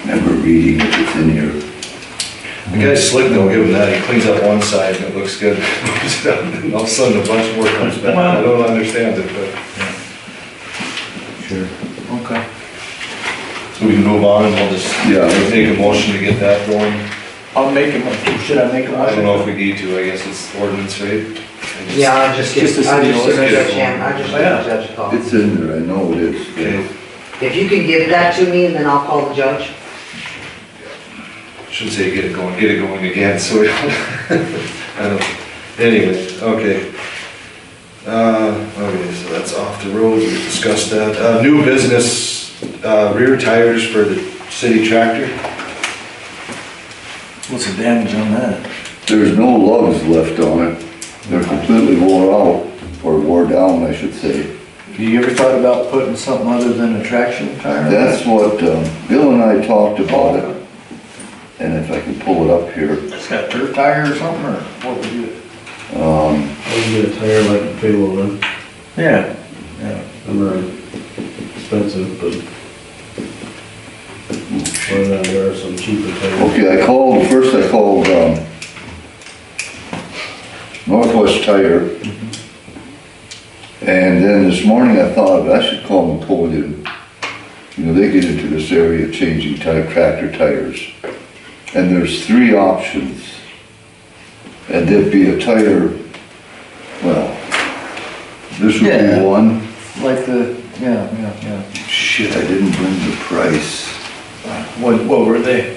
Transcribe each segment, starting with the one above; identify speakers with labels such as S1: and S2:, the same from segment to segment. S1: remember reading it, it's in here.
S2: The guy's slick though, give him that, he cleans up one side and it looks good. And All of a sudden, a bunch more comes back, I don't understand it, but,
S3: Sure. Okay.
S2: so we can move on and we'll just,
S1: Yeah.
S2: take a motion to get that going.
S3: I'll make a motion, should I make a
S2: I don't
S3: motion?
S2: know if we need to, I guess it's ordinance, right? I just-
S4: Yeah, I'll just give,
S3: Just a
S4: I'll
S3: single-
S4: just give the
S2: just
S4: judge,
S2: a-
S4: hand- I'll just give
S3: Yeah.
S4: the judge a call.
S1: It's in there, I know it is.
S2: Okay,
S4: If you can give that to me, and then I'll call the judge.
S2: should say get it going, get it going again, so we don't. I don't- Anyway, okay. Uh, okay, so that's off the road, we discussed that. Uh, new business, uh, rear tires for the city tractor.
S3: What's the damage on that?
S1: There's no lugs left on it. They're completely wore out, or wore down, I should say.
S3: You ever thought about putting something other than a traction tire?
S1: That's what um, Bill and I talked about it. And if I can pull it up here,
S3: It's got dirt tire or something, or what would you?
S1: um,
S5: I can get a tire like a Palo then,
S3: Yeah.
S5: I'm not expensive, but. Why not, there are some cheaper tires.
S1: okay, I called, first I called, um, Northwest Tire. And then this morning I thought, I should call Napoleon. You know, they get into this area of changing tire, tractor tires. And there's three options. And there'd be a tire, well, this would
S3: Yeah.
S1: be one.
S3: Like the, yeah, yeah, yeah.
S1: Shit, I didn't bring the price.
S3: What, what were they?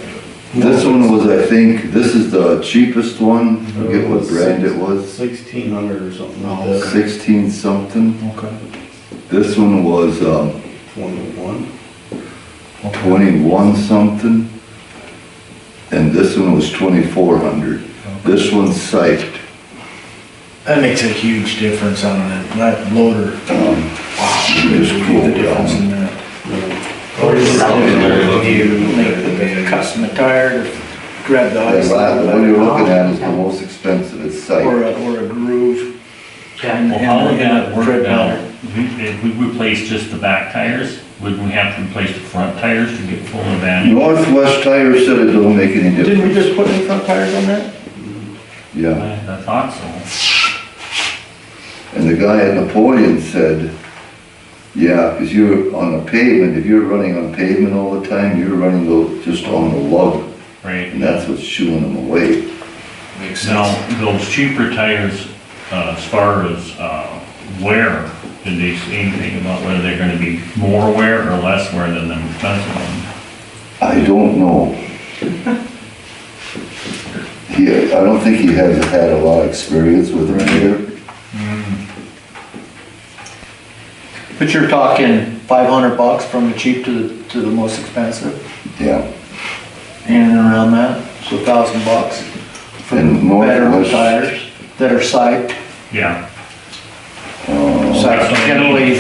S1: This one was, I think, this is the cheapest one, I forget what brand it was,
S5: Sixteen hundred or something like
S3: Oh,
S5: that.
S1: sixteen something.
S3: Okay.
S1: This one was, um,
S5: Twenty-one.
S1: twenty-one something. And this one was twenty-four hundred. This one's psyched.
S3: That makes a huge difference on that, that loader.
S1: Um,
S3: Wow.
S1: It's cool,
S3: The difference in that.
S5: Yeah.
S3: Or is it-
S2: Very lucky.
S3: You make the custom tire, grab the
S1: and
S3: ice.
S1: that- the one you're looking at is the most expensive, it's
S3: Or
S1: psyched.
S3: a, or a groove.
S4: Okay.
S6: Well, how would that
S3: Tread
S6: work
S3: powder.
S6: out? If we replace just the back tires, wouldn't we have to replace the front tires to get full advantage?
S1: Northwest Tire said it don't make any
S3: Didn't we
S1: difference.
S3: just put new front tires on that?
S1: Yeah,
S6: I I thought so.
S1: and the guy at Napoleon said, Yeah, because you're on a pavement, if you're running on pavement all the time, you're running tho- just on the lug,
S6: Right.
S1: and that's what's shooing them away.
S2: Makes sense.
S6: Now, those cheaper tires, uh, as far as, uh, wear, did they say anything about whether they're gonna be more wear or less wear than them expensive ones?
S1: I don't know. He, I don't think he has had a lot of experience with them here.
S3: But you're talking five hundred bucks from the cheap to the, to the most expensive,
S1: Yeah,
S3: in and around that, so thousand bucks. For
S1: And more
S3: better
S1: or less-
S3: tires that are psyched,
S6: Yeah,
S1: Oh,
S3: psyched generally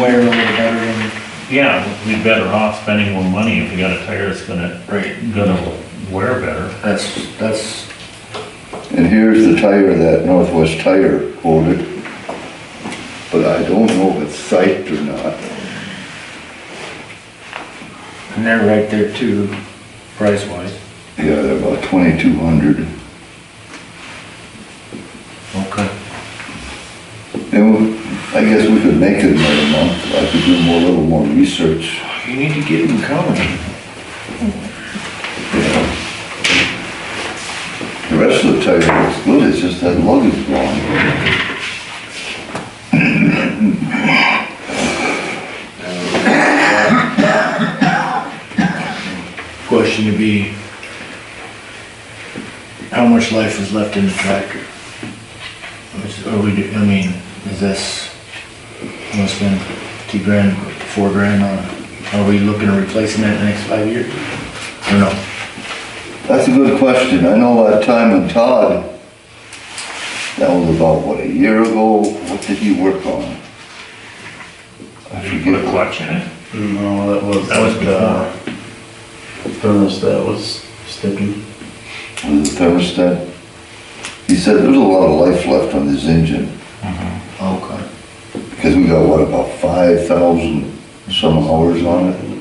S3: wear a little better than.
S6: yeah, we'd be better off spending more money if we got a tire that's gonna,
S3: Right.
S6: gonna wear better.
S3: That's, that's,
S1: and here's the tire that Northwest Tire quoted, but I don't know if it's psyched or not.
S3: and they're right there too, price wise.
S1: Yeah, they're about twenty-two hundred.
S3: Okay.
S1: And I guess we could make it another month, I could do more, a little more research.
S3: You need to get them coming.
S1: The rest of the tire looks good, it's just that lug is gone.
S3: Question to be, how much life is left in the tractor? Is- Are we, do- I mean, is this, I'm gonna spend two grand, four grand on it. Are we looking at replacing that in the next five years? Or no?
S1: That's a good question, I know that time in Todd, that was about, what, a year ago, what did he work on? I
S6: You put a
S1: forget,
S6: clutch in it.
S5: Mm, No, that was.
S6: That was
S5: like, uh, Furnace that was sticking.
S1: was it thermostat? He said there's a lot of life left on this engine,
S3: Okay.
S1: because we got, what, about five thousand some hours on it?